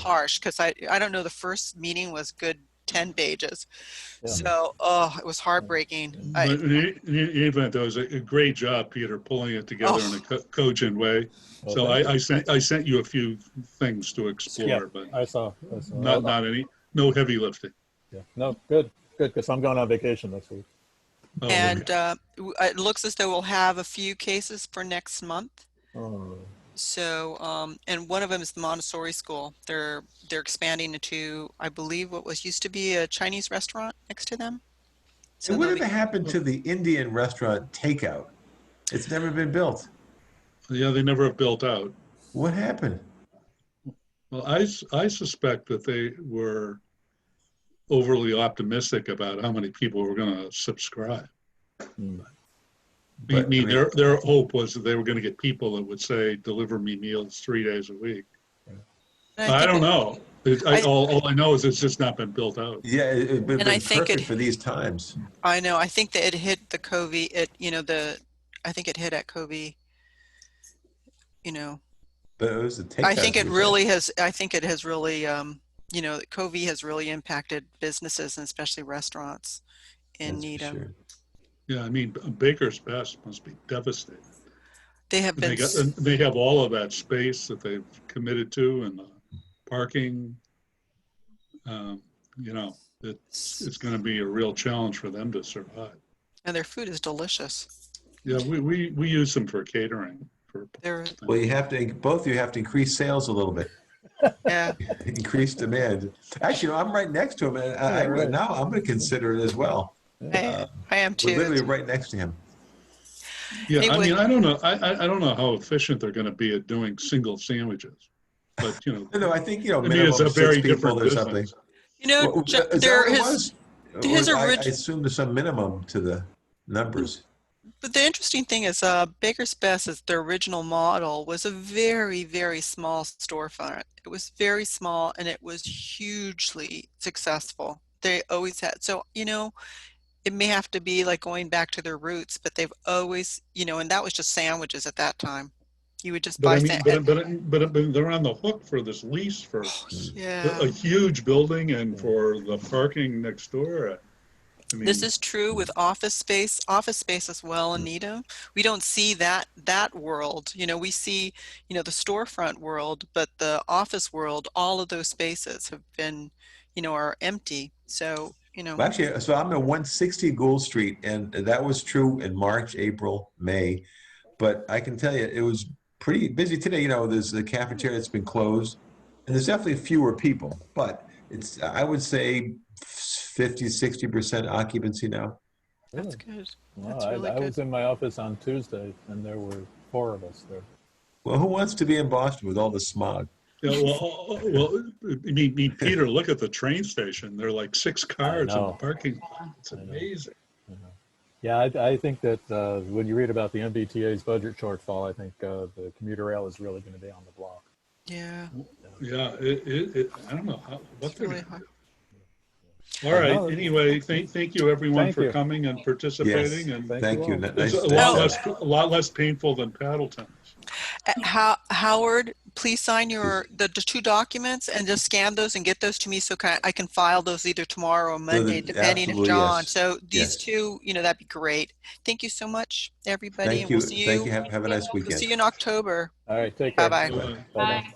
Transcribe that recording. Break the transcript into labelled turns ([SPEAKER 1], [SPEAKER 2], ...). [SPEAKER 1] harsh because I, I don't know, the first meeting was good 10 pages.
[SPEAKER 2] Yeah.
[SPEAKER 1] So, oh, it was heartbreaking. I,
[SPEAKER 3] But in e- in the event, though, it was a a great job, Peter, pulling it together
[SPEAKER 1] Oh.
[SPEAKER 3] in a co- cogent way. So I, I sent, I sent you a few things to explore, but
[SPEAKER 2] I saw. I saw.
[SPEAKER 3] not, not any, no heavy lifting.
[SPEAKER 2] Yeah. No, good, good, because I'm going on vacation next week.
[SPEAKER 3] Oh, okay.
[SPEAKER 1] and uh, w- it looks as though we'll have a few cases for next month.
[SPEAKER 2] Oh,
[SPEAKER 1] So, um, and one of them is the Montessori school. They're they're expanding into, I believe, what was used to be a Chinese restaurant next to them. So
[SPEAKER 4] And what
[SPEAKER 1] they'll
[SPEAKER 4] ever
[SPEAKER 1] be-
[SPEAKER 4] happened to the Indian restaurant takeout? It's never been built.
[SPEAKER 3] Yeah, they never have built out.
[SPEAKER 4] What happened?
[SPEAKER 3] Well, I, s- I suspect that they were overly optimistic about how many people were going to subscribe.
[SPEAKER 2] Hmm.
[SPEAKER 3] I
[SPEAKER 4] But, I
[SPEAKER 3] mean,
[SPEAKER 4] mean-
[SPEAKER 3] their, their hope was that they were going to get people that would say, deliver me meals three days a week.
[SPEAKER 1] and
[SPEAKER 3] I
[SPEAKER 1] think
[SPEAKER 3] don't
[SPEAKER 1] it-
[SPEAKER 3] know. It- I,
[SPEAKER 1] I-
[SPEAKER 3] all, all I know is it's just not been built out.
[SPEAKER 4] Yeah, it, it,
[SPEAKER 1] And I
[SPEAKER 4] been
[SPEAKER 1] think
[SPEAKER 4] perfect
[SPEAKER 1] it-
[SPEAKER 4] for these times.
[SPEAKER 1] I know. I think that it hit the Covey. It you know the I think it hit at Covey. You know,
[SPEAKER 4] But it was the takeout.
[SPEAKER 1] I think it
[SPEAKER 4] that was-
[SPEAKER 1] really has. I think it has really. Um, you know, Covey has really impacted businesses and especially restaurants
[SPEAKER 4] That's
[SPEAKER 1] in
[SPEAKER 4] for
[SPEAKER 1] Needham.
[SPEAKER 4] sure.
[SPEAKER 3] Yeah, I mean, Baker's Best must be devastated.
[SPEAKER 1] They have
[SPEAKER 3] And
[SPEAKER 1] been.
[SPEAKER 3] They, got,
[SPEAKER 1] s-
[SPEAKER 3] and they have all of that space that they've committed to and the parking. Um, you know,
[SPEAKER 1] s-
[SPEAKER 3] it's going to be a real challenge for them to survive.
[SPEAKER 1] and their food is delicious.
[SPEAKER 3] Yeah, we, we, we use them for catering for
[SPEAKER 1] They're
[SPEAKER 4] Well, you have to, both you have to increase sales a little bit,
[SPEAKER 1] yeah.
[SPEAKER 4] increase demand. Actually, you know, I'm right next to him and I,
[SPEAKER 2] Yeah,
[SPEAKER 4] I,
[SPEAKER 2] right.
[SPEAKER 4] now I'm going to consider it as well.
[SPEAKER 1] I, I am
[SPEAKER 4] We're literally
[SPEAKER 1] too.
[SPEAKER 4] right next to him.
[SPEAKER 3] Yeah,
[SPEAKER 1] They
[SPEAKER 3] I
[SPEAKER 1] would-
[SPEAKER 3] mean, I don't know, I, I, I don't know how efficient they're gonna be at doing single sandwiches. But, you know,
[SPEAKER 4] No, no, I think, you know,
[SPEAKER 3] I mean, it's a
[SPEAKER 4] minimum
[SPEAKER 3] very
[SPEAKER 4] six people
[SPEAKER 3] different
[SPEAKER 4] or something.
[SPEAKER 3] business.
[SPEAKER 1] You know,
[SPEAKER 4] Well,
[SPEAKER 1] Ju-
[SPEAKER 4] is that
[SPEAKER 1] there
[SPEAKER 4] what it
[SPEAKER 1] is.
[SPEAKER 4] was?
[SPEAKER 1] his
[SPEAKER 4] Or I- I
[SPEAKER 1] orig-
[SPEAKER 4] assume there's some minimum to the numbers.
[SPEAKER 1] But the interesting thing is, uh, Baker's Best is their original model was a very, very small storefront. It was very small and it was hugely successful. They always had, so, you know, it may have to be like going back to their roots, but they've always, you know, and that was just sandwiches at that time. You would just
[SPEAKER 3] But
[SPEAKER 1] buy
[SPEAKER 3] I mean,
[SPEAKER 1] sandwiches.
[SPEAKER 3] but, but, but but they're on the hook for this lease for a
[SPEAKER 1] Oh, Yeah.
[SPEAKER 3] huge building and for the parking next door. I mean,
[SPEAKER 1] This is true with office space, office space as
[SPEAKER 4] Mm.
[SPEAKER 1] well in Needham. We don't see that that world. You know, we see, you know, the storefront world, but the office world, all of those spaces have been, you know, are empty. So, you know,
[SPEAKER 4] Well, actually, so I'm at 160 Gould Street, and that was true in March, April, May. But I can tell you, it was pretty busy today. You know, there's the cafeteria that's been closed, and there's definitely fewer people, but it's, I would say, 50, 60% occupancy now.
[SPEAKER 1] that's good.
[SPEAKER 2] Wow,
[SPEAKER 1] That's
[SPEAKER 2] I,
[SPEAKER 1] really
[SPEAKER 2] I
[SPEAKER 1] good.
[SPEAKER 2] was in my office on Tuesday, and there were four of us there.
[SPEAKER 4] Well, who wants to be in Boston with all the smog?
[SPEAKER 3] yeah, well, uh, well, I mean, I mean, Peter, look at the train station. There are like six cars in the
[SPEAKER 2] know.
[SPEAKER 3] parking lot. It's
[SPEAKER 2] I know.
[SPEAKER 3] amazing.
[SPEAKER 2] Yeah, I, I think that uh, when you read about the MBTA's budget shortfall, I think uh, the commuter rail is really going to be on the block.
[SPEAKER 1] Yeah.
[SPEAKER 3] Yeah, it, it, it, I don't know how, what
[SPEAKER 1] It's
[SPEAKER 3] they're
[SPEAKER 1] really hard.
[SPEAKER 3] All right,
[SPEAKER 2] Another-
[SPEAKER 3] anyway, thank, thank you everyone
[SPEAKER 2] Thank
[SPEAKER 3] for
[SPEAKER 2] you.
[SPEAKER 3] coming and participating and
[SPEAKER 2] Thank
[SPEAKER 4] Thank
[SPEAKER 2] you all.
[SPEAKER 4] you.
[SPEAKER 3] it's
[SPEAKER 4] Nice-
[SPEAKER 3] a
[SPEAKER 4] nice
[SPEAKER 3] lot
[SPEAKER 4] to-
[SPEAKER 3] less, a lot less painful than paddle tennis.
[SPEAKER 1] Uh, How, Howard, please sign your, the, the two documents and just scan those and get those to me so can, I can file those either tomorrow or Monday,
[SPEAKER 4] the-
[SPEAKER 1] depending on
[SPEAKER 4] absolutely,
[SPEAKER 1] John.
[SPEAKER 4] yes.
[SPEAKER 1] So these
[SPEAKER 4] Yes.
[SPEAKER 1] two, you know, that'd be great. Thank you so much, everybody.
[SPEAKER 4] Thank
[SPEAKER 1] and we'll
[SPEAKER 4] you.
[SPEAKER 1] see
[SPEAKER 4] Thank you. Have, have a nice
[SPEAKER 1] We'll
[SPEAKER 4] weekend.
[SPEAKER 1] See you in October.
[SPEAKER 2] All right, take care.
[SPEAKER 1] Bye-bye.
[SPEAKER 3] Bye.
[SPEAKER 2] Bye-bye.